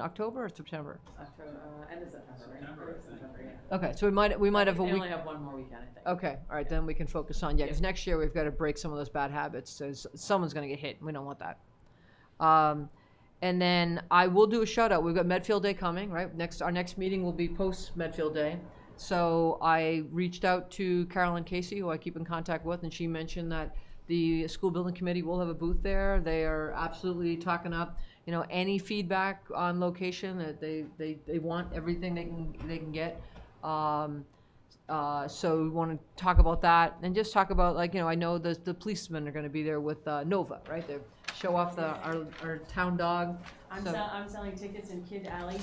October or September? October, uh, end of September, right? September, I think. September, yeah. Okay, so we might, we might have a They week. Oh, only have one more weekend, I think. Okay, all right, then we can focus on, yeah, because Yeah. next year we've got to break some of those bad habits. So s- someone's going to get hit. and We don't want that. Um, and then I will do a shout out. We've got Medfield Day coming, right? Next, our next meeting will be post Medfield Day. So I reached out to Carolyn Casey, who I keep in contact with, and she mentioned that the school building committee will have a booth there. They are absolutely talking up, you know, any feedback on location that they, they, they want everything they can, they can get. Um, uh, so we want to talk about that and just talk about like, you know, I know the, the policemen are going to be there with uh, Nova, right? They show off the, our, our town dog. I'm So- sell, I'm selling tickets in Kid Alley.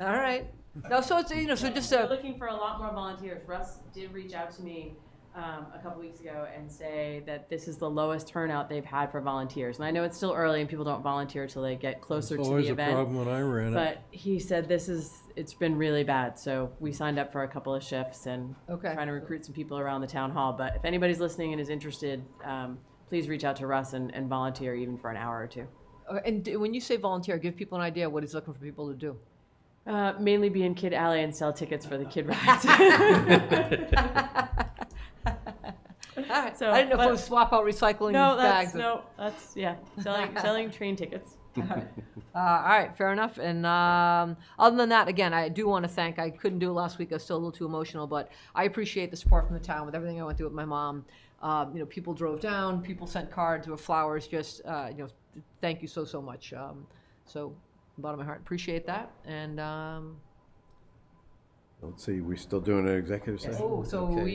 All right. No, so it's, you know, so just uh, We're a, Um, looking for a lot more volunteers. Russ did reach out to me, um, a couple weeks ago and say that this is the lowest turnout they've had for volunteers. And I know it's still early and people don't volunteer till they get closer to It's the always event. a problem when I ran it. But he said this is, it's been really bad, so we signed up for a couple of shifts and okay. trying to recruit some people around the town hall. But if anybody's listening and is interested, um, please reach out to Russ and, and volunteer even for an hour or two. Uh, And d- when you say volunteer, give people an idea what he's looking for people to do. Uh, mainly be in Kid Alley and sell tickets for the kid rides. All right. So, I didn't know if but- it was swap out recycling no, bags. that's, no, that's, yeah, selling, selling train tickets. Uh, all right, fair enough. And um, other than that, again, I do want to thank. I couldn't do it last week. I was still a little too emotional, but I appreciate the support from the town with everything I went through with my mom. Um, you know, people drove down, people sent cards with flowers. Just uh, you know, thank you so so much. Um, so, bottom of my heart, appreciate that. And um, Let's see, we still doing an executive session? oh, so Okay. we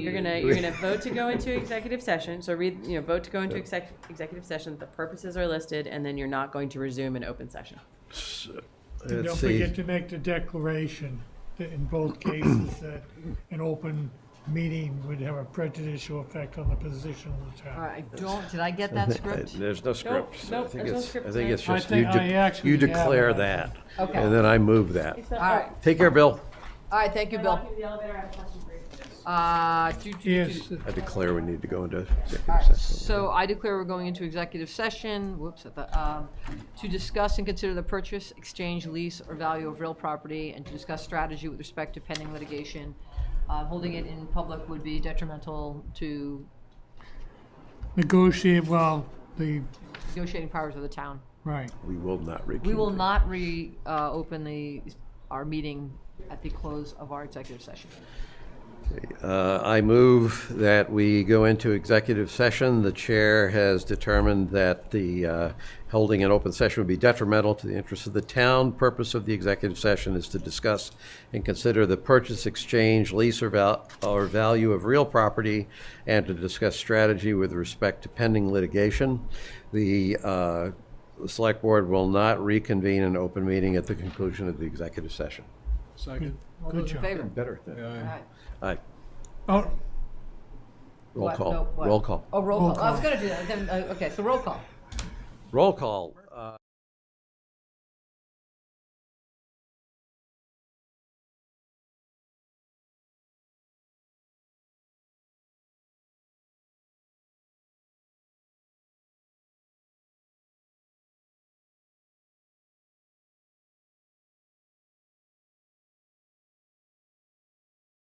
You're gonna, you're gonna vote to go into executive session, so read, you know, vote to go into exec, executive session, the purposes are listed, and then you're not going to resume an open session. And Let's don't see. forget to make the declaration that in both cases that an open meeting would have a prejudicial effect on the position of the All town. right, I don't. Did I get that script? There's no script. nope, I think there's no it's- script I think it's tonight. I just, you think I de- actually you have declare it. that, Okay. and then I move that. All right. Take care, Bill. All right. Thank you, Bill. the elevator, I have a question for you. Uh, do, do, do, Yes, I declare we need to go into All executive right, session. So I declare we're going into executive session, whoops, at the, um, to discuss and consider the purchase, exchange, lease, or value of real property, and to discuss strategy with respect to pending litigation. Uh, holding it in public would be detrimental to negotiate, well, the, negotiating powers of the town. right. We will not reconvene. We will not re, uh, open the, our meeting at the close of our executive session. Uh, I move that we go into executive session. The chair has determined that the uh, holding an open session would be detrimental to the interests of the town. Purpose of the executive session is to discuss and consider the purchase, exchange, lease, or val- or value of real property, and to discuss strategy with respect to pending litigation. The uh, the Select Board will not reconvene an open meeting at the conclusion of the executive session. Second. All Good those in job. favor? Better. All right. Aye. Oh, Roll What? No, call. what? Roll call. Oh, roll Roll call. I was gonna do that, then, uh, okay, so roll call. Roll call. Uh,